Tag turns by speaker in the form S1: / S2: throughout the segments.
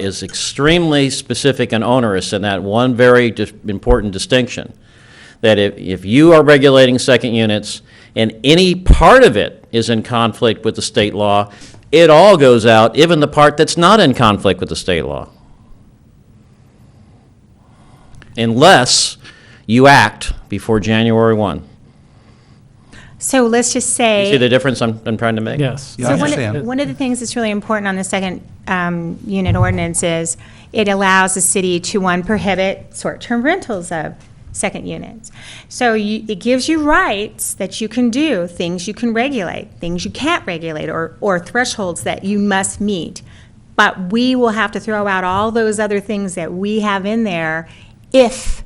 S1: is extremely specific and onerous in that one very dis- important distinction. That if, if you are regulating second units and any part of it is in conflict with the state law, it all goes out, even the part that's not in conflict with the state law. Unless you act before January 1.
S2: So let's just
S1: You see the
S2: say,
S1: difference I'm, I'm trying to make?
S3: Yes.
S2: so one of,
S4: understand.
S2: one of the things that's really important on the second um, unit ordinance is it allows the city to, one, prohibit short-term rentals of second units. So you, it gives you rights that you can do, things you can regulate, things you can't regulate, or, or thresholds that you must meet. But we will have to throw out all those other things that we have in there if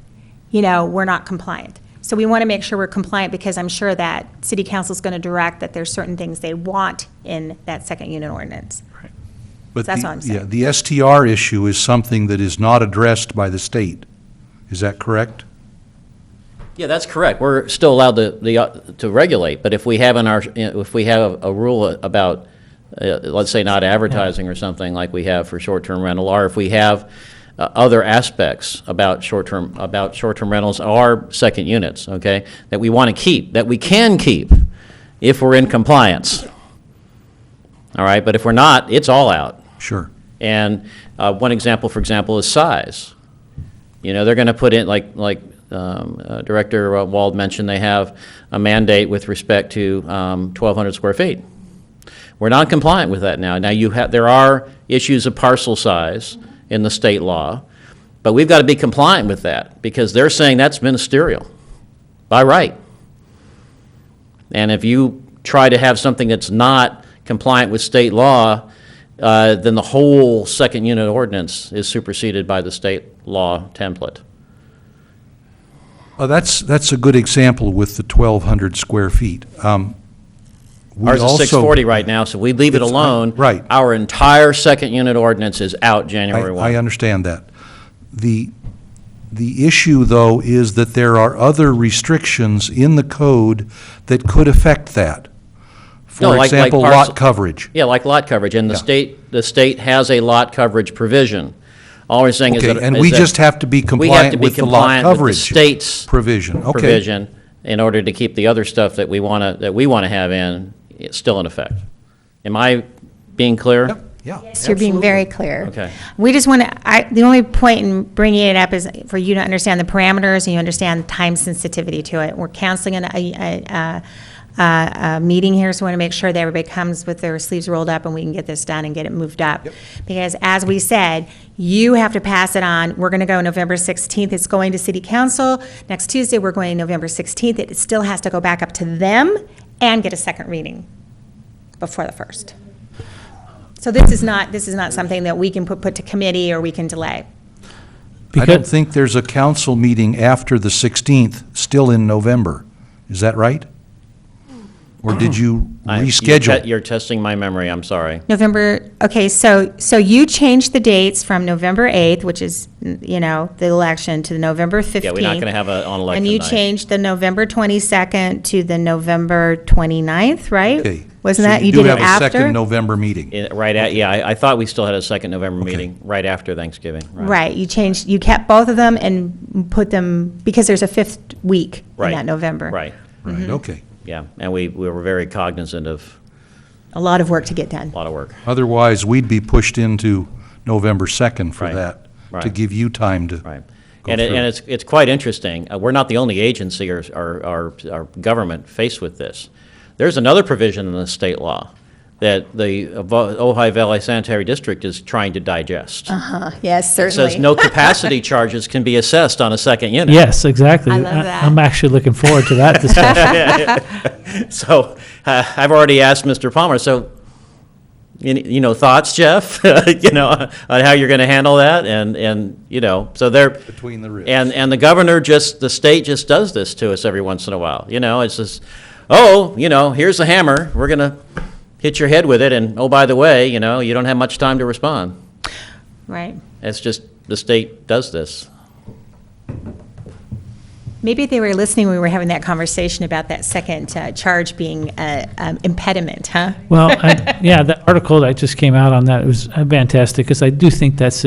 S2: you know, we're not compliant. So we want to make sure we're compliant because I'm sure that city council's going to direct that there's certain things they want in that second unit ordinance.
S4: But
S2: That's
S4: the-
S2: what I'm saying.
S4: Yeah, the STR issue is something that is not addressed by the state. Is that correct?
S1: Yeah, that's correct. We're still allowed to, the, uh, to regulate, but if we have in our, if we have a rule about, uh, let's say not advertising or something like we have for short-term rental, or if we have uh, other aspects about short-term, about short-term rentals or second units, okay, that we want to keep, that we can keep if we're in compliance. All right, but if we're not, it's all out.
S4: Sure.
S1: And uh, one example, for example, is size. You know, they're going to put in, like, like um, uh, Director uh, Wald mentioned, they have a mandate with respect to um, 1,200 square feet. We're not compliant with that now. Now, you have, there are issues of parcel size in the state law, but we've got to be compliant with that because they're saying that's ministerial by right. And if you try to have something that's not compliant with state law, uh, then the whole second unit ordinance is superseded by the state law template.
S4: Uh, That's, that's a good example with the 1,200 square feet. Um, we
S1: Ours is
S4: also-
S1: 640 right now, so we leave it
S4: It's- uh,
S1: alone.
S4: right.
S1: Our entire second unit ordinance is out
S4: I-
S1: January
S4: I uh,
S1: 1.
S4: understand that. The, the issue, though, is that there are other restrictions in the code that could affect that.
S1: No,
S4: For
S1: like- like
S4: example,
S1: parcel-
S4: lot coverage.
S1: Yeah, like lot coverage, and the
S4: Yeah.
S1: state, the state has a lot coverage provision. All we're saying is that.
S4: Okay, and
S1: is
S4: we
S1: that
S4: just have to be
S1: we have to
S4: compliant
S1: be
S4: with the lot
S1: compliant with the
S4: coverage.
S1: state's
S4: Provision, okay.
S1: provision in order to keep the other stuff that we want to, that we want to have in, it's still in effect. Am I being clear?
S4: Yep, Yeah.
S2: So you're being very clear.
S1: Okay.
S2: We just want to, I, the only point in bringing it up is for you to understand the parameters and you understand time sensitivity to it. We're canceling an, a, a, a, a, a meeting here, so we want to make sure that everybody comes with their sleeves rolled up and we can get this done and get it moved up. Because as we said, you have to pass it on. We're going to go November 16th. It's going to city council. Next Tuesday, we're going November 16th. It still has to go back up to them and get a second reading before the first. So this is not, this is not something that we can put, put to committee or we can delay.
S4: I don't
S3: Because-
S4: think there's a council meeting after the 16th, still in November. Is that right? Or did you
S1: I- you te-
S4: reschedule?
S1: You're testing my memory, I'm sorry.
S2: November, okay, so, so you changed the dates from November 8th, which is, you know, the election, to November 15th.
S1: Yeah, we're not going to have a, on election
S2: And
S1: night.
S2: you changed the November 22nd to the November 29th,
S4: Okay.
S2: right? Wasn't
S4: So
S2: that, you did it
S4: do have a second
S2: after?
S4: November meeting.
S1: It- Eh, Right at, yeah, I, I thought we still had a second November meeting, right after Thanksgiving.
S2: Right, you changed, you kept both of them and put them, because there's a fifth week in
S1: Right.
S2: that November.
S1: Right,
S2: Mm-hmm.
S4: Right, okay.
S1: yeah, and we, we were very cognizant of
S2: A lot of work to get done.
S1: a lot of work.
S4: Otherwise, we'd be pushed into November 2nd for
S1: Right,
S4: that, to
S1: right.
S4: give you time to.
S1: Right.
S4: go
S1: And, it-
S4: through.
S1: and it's, it's quite interesting. Uh, We're not the only agency or, or, or- or government faced with this. There's another provision in the state law that the Vo- Ojai Valley Sanitary District is trying to digest.
S2: Yes,
S1: It says no capacity charges can be assessed on a second unit.
S3: Yes, exactly.
S2: I love that.
S3: am actually looking forward to that discussion.
S1: So uh, I've already asked Mr. Palmer, so, you you know, thoughts, Jeff? You know, on how you're going to handle that and, and, you know, so they're.
S4: Between the ribs.
S1: And, and the governor just, the state just does this to us every once in a while, you know, it's just, oh, you know, here's the hammer, we're going to hit your head with it, and oh, by the way, you know, you don't have much time to respond.
S2: Right.
S1: It's just, the state does this.
S2: Maybe they were listening when we were having that conversation about that second uh, charge being an impediment, huh?
S3: well, I, yeah, the article that just came out on that was uh, fantastic because I do think that's